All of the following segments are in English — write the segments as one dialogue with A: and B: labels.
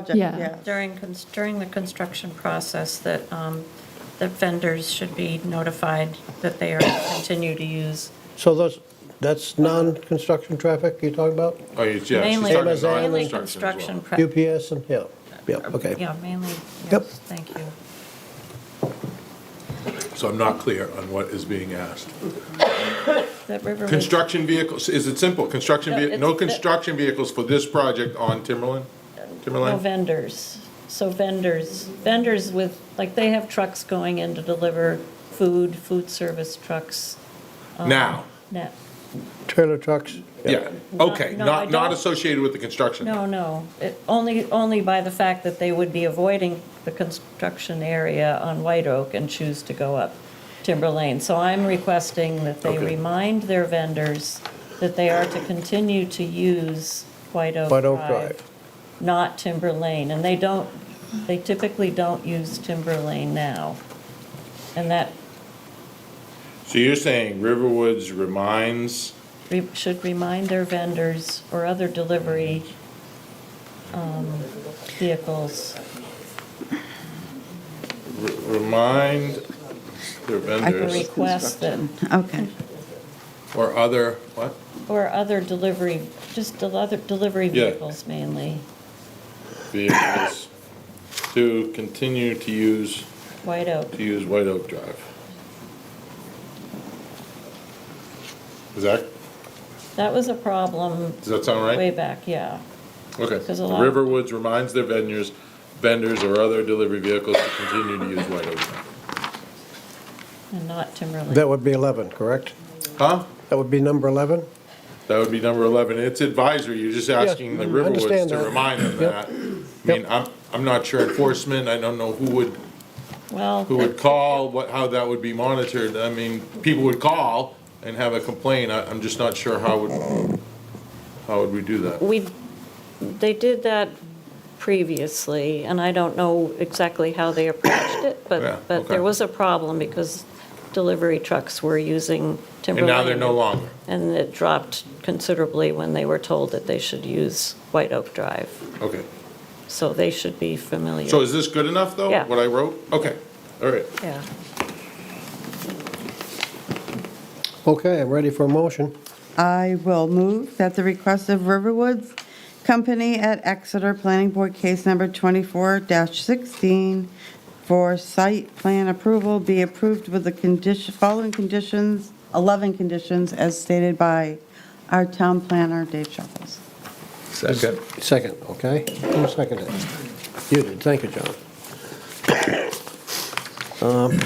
A: project,
B: Yeah.
A: yeah.
C: During, cons- during the construction process, that, um, that vendors should be notified that they are to continue to use
D: So those, that's non-construction traffic you're talking about?
E: Oh, yes, yes. she's
C: mainly,
E: talking about
D: Amazon.
C: mainly
E: construction
C: construction.
E: as well.
C: pre-
D: UPS and, yeah, yeah, okay.
C: Yeah, mainly,
D: Yep.
C: yes, thank you.
E: So I'm not clear on what is being asked.
C: That Riverwood.
E: Construction vehicles, is it simple? Construction,
C: No,
E: vehi-
C: it's-
E: no
C: it-
E: construction vehicles for this project on Timberland?
C: No
E: Timberland?
C: vendors. So vendors, vendors with, like, they have trucks going in to deliver food, food service trucks. um,
E: Now,
C: No,
D: Trailer trucks?
E: yeah, okay,
C: no, I
E: not, not
C: don't-
E: associated with the construction.
C: no, no. It- Only, only by the fact that they would be avoiding the construction area on White Oak and choose to go up Timber Lane. So I'm requesting that they
E: Okay.
C: remind their vendors that they are to continue to use White Oak
D: White Oak
C: Drive,
D: Drive.
C: not Timber Lane. And they don't, they typically don't use Timber Lane now. And that
E: So you're saying Riverwoods reminds,
C: re- should remind their vendors or other delivery um, vehicles.
E: re- remind their
C: I can
E: vendors
C: request that,
A: Okay.
E: or other, what?
C: or other delivery, just del- other delivery
E: Yeah.
C: vehicles mainly,
E: Vehicles to continue to use,
C: White Oak.
E: to use White Oak Drive. Is that,
C: That was a problem
E: does that sound right?
C: way back, yeah.
E: Okay. The
C: Because a lot-
E: Riverwoods reminds their vendors, vendors or other delivery vehicles to continue to use White Oak.
C: And not
D: That
C: Timberlane.
D: would be 11, correct?
E: Huh?
D: That would be number 11?
E: That would be number 11. It's advisory. You're just asking the
D: I
E: Riverwoods
D: mm, understand
E: to
D: that.
E: remind them that. I mean,
D: Yep.
E: I'm, I'm not sure enforcement. I don't know who would,
C: Well,
E: who would call, what, how that would be monitored. I mean, people would call and have a complaint. I, I'm just not sure how would, how would we do that?
C: we, they did that previously, and I don't know exactly how they approached it,
E: Yeah,
C: but, but
E: okay.
C: there was a problem because delivery trucks were using
E: And
C: Timberlane.
E: now they're no longer.
C: And it dropped considerably when they were told that they should use White Oak Drive.
E: Okay.
C: So they should be familiar.
E: So is this good enough, though?
C: Yeah.
E: What I wrote? Okay. All right.
C: Yeah.
D: Okay, I'm ready for a motion.
A: I will move that the request of Riverwoods Company at Exeter Planning Board Case Number 24-16 for site plan approval be approved with the condition, following conditions, 11 conditions as stated by our town planner, Dave Shuffles.
D: Second. Second, okay. Who seconded it? You did, thank you, John. Um,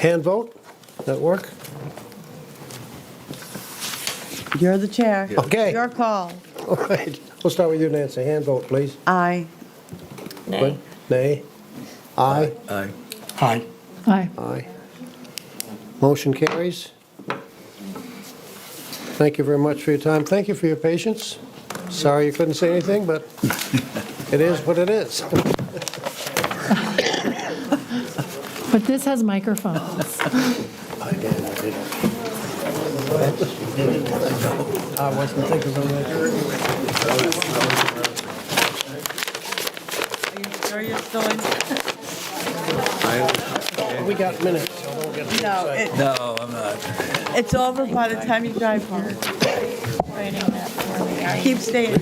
D: Hand vote, that work?
A: You're the chair.
D: Okay.
A: Your call.
D: All right, we'll start with you, Nancy. Hand vote, please.
A: Aye.
C: Nay.
D: Nay? Aye?
F: Aye.
D: Aye.
B: Aye.
D: Aye. Motion carries. Thank you very much for your time. Thank you for your patience. Sorry you couldn't say anything, but it is what it is.
B: But this has microphones.
F: I did, I did. I wasn't thinking of that.
A: Are you sure you're still in?
D: We got minutes.
A: No, it-
F: No, I'm not.
A: it's over by the time you drive home.
C: Writing that for me. I-
A: Keep staying.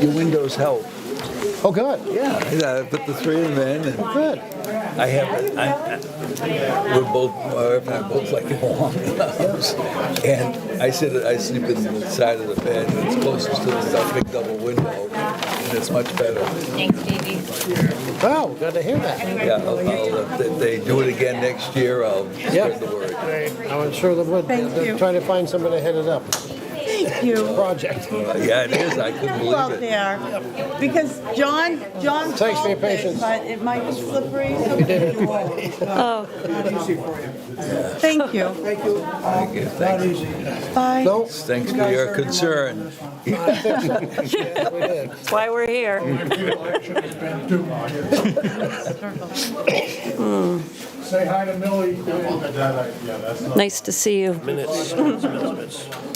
F: Your windows help.
D: Oh, good,
F: Yeah, yeah, I put the three of them in, and
D: good.
F: I have, I, we're both, my wife and I both like to go on. And I sit, I sleep in the side of the bed, and it's closest to the big double window, and it's much better.
D: Wow, glad to hear that.
F: Yeah, I'll, I'll, uh, if they- they do it again next year, I'll spread the word.
D: I'm sure they would.
A: Thank
D: They're
A: you.
D: Trying to find somebody to head it up,
A: Thank you.
D: project.
F: Yeah, it is, I couldn't
A: Careful out
F: believe it.
A: there, because John, John
D: Thanks for your
A: called it,
D: patience.
A: but it might be slippery, so we need to roll. uh, Thank you.
F: Thank you, thank you.
A: Bye.
F: oh,
D: No?
F: Thanks for your concern.
D: We did.
C: That's why we're here.
G: Say hi to Millie.
C: Nice to see you.
D: Minutes. minutes, minutes.